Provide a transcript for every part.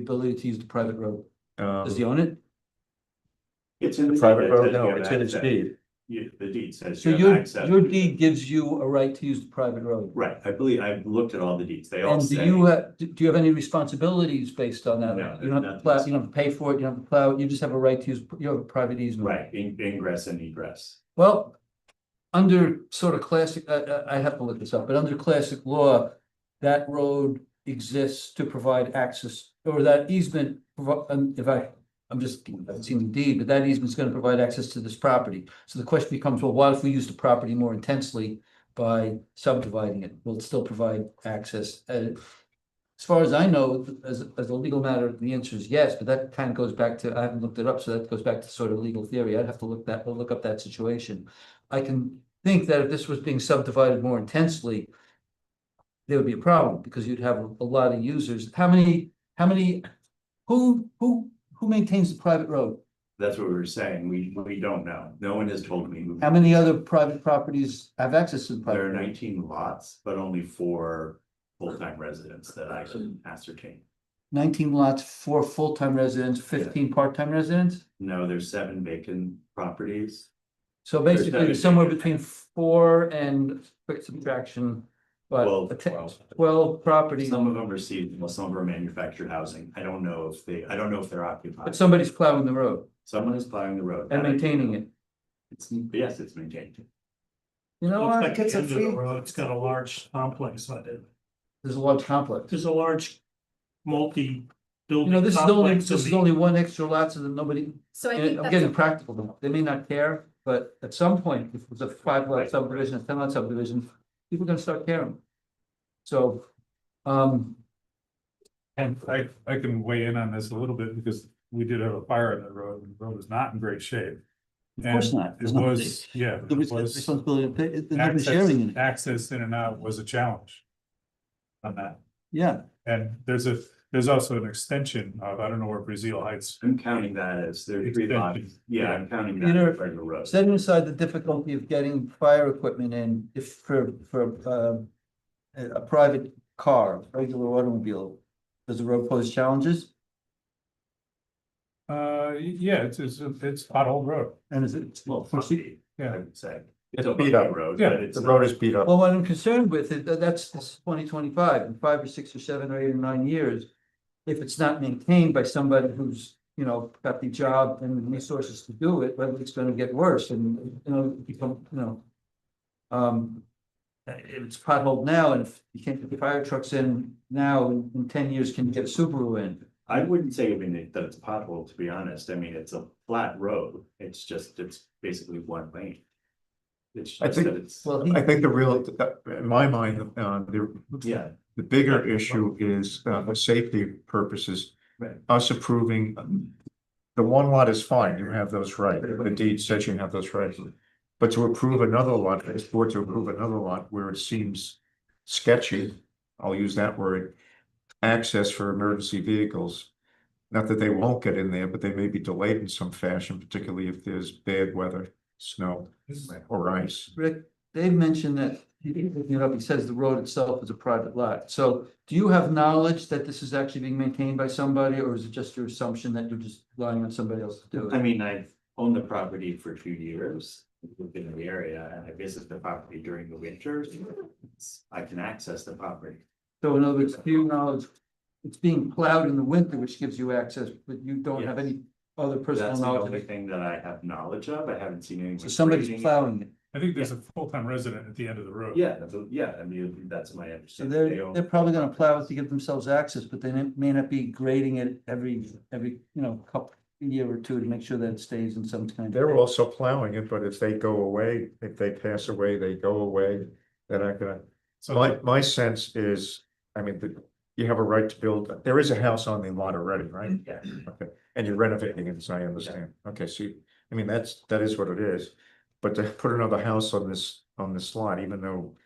ability to use the private road? Does he Um, own it? It's in. the the private deed that road, says no, you have it's in his access. deed. You- the deed says. So you have your, access your to- deed gives you a right to use the private road? Right, I believe, I've looked at all the deeds, they all And do say. you, ha- do do you have any responsibilities based on that? No, You don't have to nothing. plow, you don't have to pay for it, you don't have to plow, it, you just have a right to use, you have a private easement. Right, in- ingress and egress. Well, under sort of classic, I, I, I have to look this up, but under classic law, that road exists to provide access, or that easement, provi- um, if I, I'm just, I've seen the deed, but that easement's gonna provide access to this property. So the question becomes, well, what if we use the property more intensely by subdividing it? Will it still provide access? Uh, As far as I know, as, as a legal matter, the answer is yes, but that kind of goes back to, I haven't looked it up, so that goes back to sort of legal theory. I'd have to look that, look up that situation. I can think that if this was being subdivided more intensely, there would be a problem because you'd have a lot of users. How many, how many, who, who, who maintains the private road? That's what we were saying, we, we don't know, no one has told me. How many other private properties have access to the private? There are road? nineteen lots, but only four full-time residents that I can ascertain. Nineteen lots, four full-time residents, fifteen part-time residents? No, there's seven vacant properties. So There's basically, seven. somewhere between four and quick subtraction, but Twelve, a te- twelve. twelve properties, Some of them are seasonal, some of them are manufactured housing. I don't know if they, I don't know if they're occupied. but somebody's plowing the road Someone is plowing the road. and maintaining it. It's, yes, it's maintained. You know Looks what? like it's a End of the free, road. it's got a large complex on it. There's a large complex. There's a large multi-building. You know, this is only, complex this in is the- only one extra lot so that nobody, So I think I'm that's, getting a- practical now. They may not care, but at some point, if it was a five lot subdivision, a ten lot subdivision, people are gonna start caring. So, um, And I, I can weigh in on this a little bit because we did have a fire on the road and the road was not in great shape. of course not. It There's no- was, yeah, the it res- was Responsibility, of pay- there's nothing sharing in it. access, access in and out was a challenge. On that, Yeah, and there's a, there's also an extension of, I don't know where Brazil Heights, I'm counting that as there are three lots. Extension. Yeah, I'm counting that. Peter, as part of the road. setting aside the difficulty of getting fire equipment in, if for, for, um, a, a private car, regular automobile, does the road pose challenges? uh, yeah, it's, it's, it's pothole road. And is it? Well, for se- funky, I Yeah. would say. It's a beat bumpy up. Road, Yeah, but it's The road not- is beat up. Well, what I'm concerned with, is that- that's twenty twenty-five, in five or six or seven or eight or nine years. If it's not maintained by somebody who's, you know, got the job and the resources to do it, well, it's gonna get worse and, you know, become, you know. Um, if it's potholed now and if you can't get the fire trucks in now, in in ten years, can you get a Subaru in? I wouldn't say even it- that it's pothole, to be honest. I mean, it's a flat road. It's just, it's basically one lane. It's I just think- that it's, Well, he, I think the real, in my mind, uh, the, yeah, the bigger issue is, uh, for safety purposes. Right. Us approving, um, the one lot is fine, you have those right, the deed says you have those rights. But to approve another lot, this board to approve another lot where it seems sketchy, I'll use that word. Access for emergency vehicles, not that they won't get in there, but they may be delayed in some fashion, particularly if there's bad weather, snow or ice. Rick, Dave mentioned that, he didn't look it up, he says the road itself is a private lot. So do you have knowledge that this is actually being maintained by somebody, or is it just your assumption that you're just relying on somebody else to do I it? mean, I've owned the property for two years. I've been in the area and I visit the property during the winters. It's- I can access the property. So in other words, do you knowledge, it's being plowed in the winter, which gives you access, but you don't have any other personal That's the knowledge. of only it. thing that I have knowledge of. I haven't seen anyone. So somebody's grading it. plowing it. I think there's a full-time resident at the end of the road. Yeah, that's a- yeah, I mean, that's my So understanding. They they're, own- they're probably gonna plow it to give themselves access, but they may not be grading it every, every, you know, couple, year or two to make sure that it stays in some kind of. They're also plowing it, but if they go away, if they pass away, they go away, they're not gonna. So My, my sense is, I mean, that you have a right to build, there is a house on the lot already, right? Yeah. Okay, and you're renovating it, so I understand. Okay, so, you- I mean, that's, that is what it is. But to put another house on this, on this lot, even though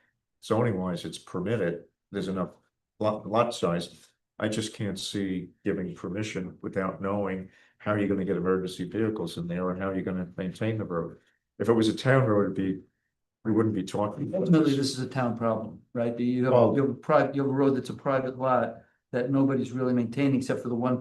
zoning wise it's permitted, there's enough lot, lot size. I just can't see giving permission without knowing how you're gonna get emergency vehicles in there and how you're gonna maintain the road. If it was a town road, it'd be, we wouldn't be talking. about Ultimately, this. this is a town problem, right? You have, Well- you have a private, you have a road that's a private lot that nobody's really maintaining except for the one